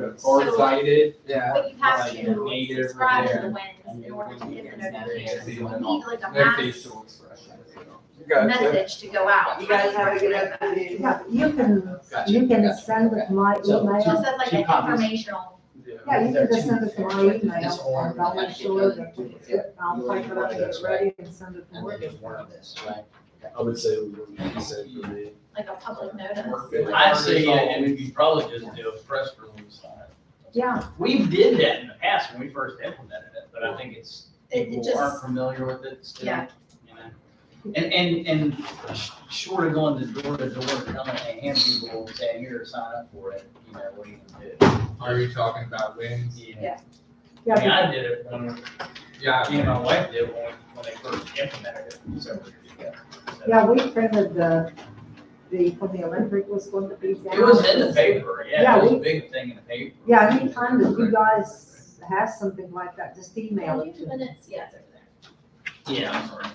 it's- or cited. Yeah. But you have Like, you to need it over subscribe to there. the winds in order to get the It's notification. the You one need like a Their mass facial expressions, you know. Gotcha. message to go out. You guys have a good afternoon. Yeah, you can, Gotcha, you can gotcha, send it okay. to my Just So, email. as like Two an copies. informational, Yeah. Yeah, you can There are just two send it to my pictures, like email, this one, and I'll like make sure the that other. it's, it- I'll You type it up, already get it wrote ready and send it to And then work. just one of this, right? I would say it would be safe for me. like a public notice. I say that, and we could probably just do a press release on it. Yeah, We did that in the past when we first implemented it, but I think it's, It- it people just- aren't familiar with it still. Yeah. you know? And, and, and sh- short of going to door to door, telling, hey, hand people, saying, here, sign up for it, you know, what are you gonna Are you talking about wins? do? Yeah. I mean, yeah, I did it when, me Yeah. and my wife did it when, we- when they first implemented it several years ago. So- yeah, we printed the, the, when the Olympic was going to be down. It was in the paper, yeah, Yeah, it was a we- big thing in the paper. Yeah, anytime that you guys have something like that, just email Are you it to me. minutes? Yes, over there. Yeah, I'm sorry.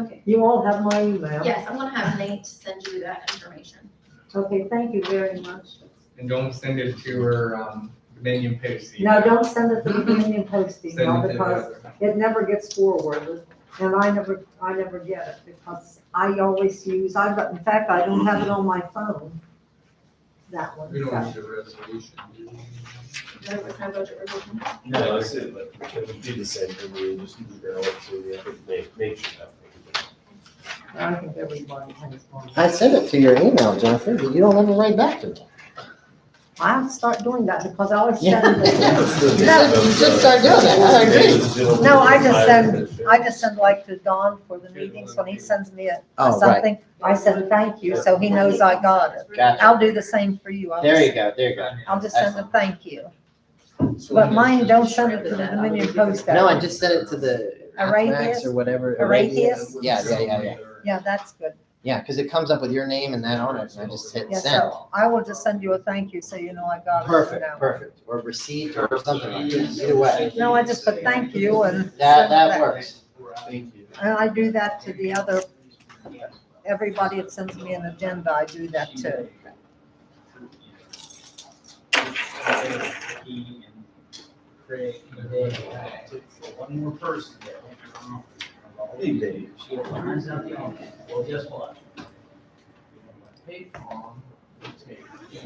Okay, You all have my email. yes, I'm gonna have Nate send you that information. Okay, thank you very much. And don't send it to her, um, Dominion Post. No, don't send it to the Union Post Send email it to the because other. it never gets forwarded, and I never, I never get it, because I always use, I, in fact, I don't have it on my phone. That one, We don't so, need a resolution. do we? There was no budget revision. No, I said, but it would be the same for me, just email it to the other make, make sure that. I think everybody has one. I sent it to your email, Jennifer, but you don't ever write back to me. I'll start doing that, because I always Yeah. send it, No, you should start doing that, I agree. No, I just send- I just send like to Don for the meetings, when he sends me a, Oh, right, something, I send thank you, so he knows I got it. Gotcha. I'll do the same for you, I'll there you just, go, there you go. I'll just send a Excellent. thank you, So um, but we mine, just- don't send it to the Dominion Post. No, I just sent it to the Arrhythmias? Max or whatever. Arrhythmias? Yeah, yeah, yeah, yeah, Yeah, that's good. yeah, because it comes up with your name and that on it, and I just hit Yeah, send. so I will just send you a thank you, so you know I got it. you Perfect, know. perfect, or received or something like that, either way, No, I just put thank you and. that, send it that back. works. Thank you. And I do that to the other, everybody that sends me an agenda, I do that too. He and Craig and Dave, I took for One more person there. Hey, Dave. She finds out the office. Well, guess what? Hey, Tom, take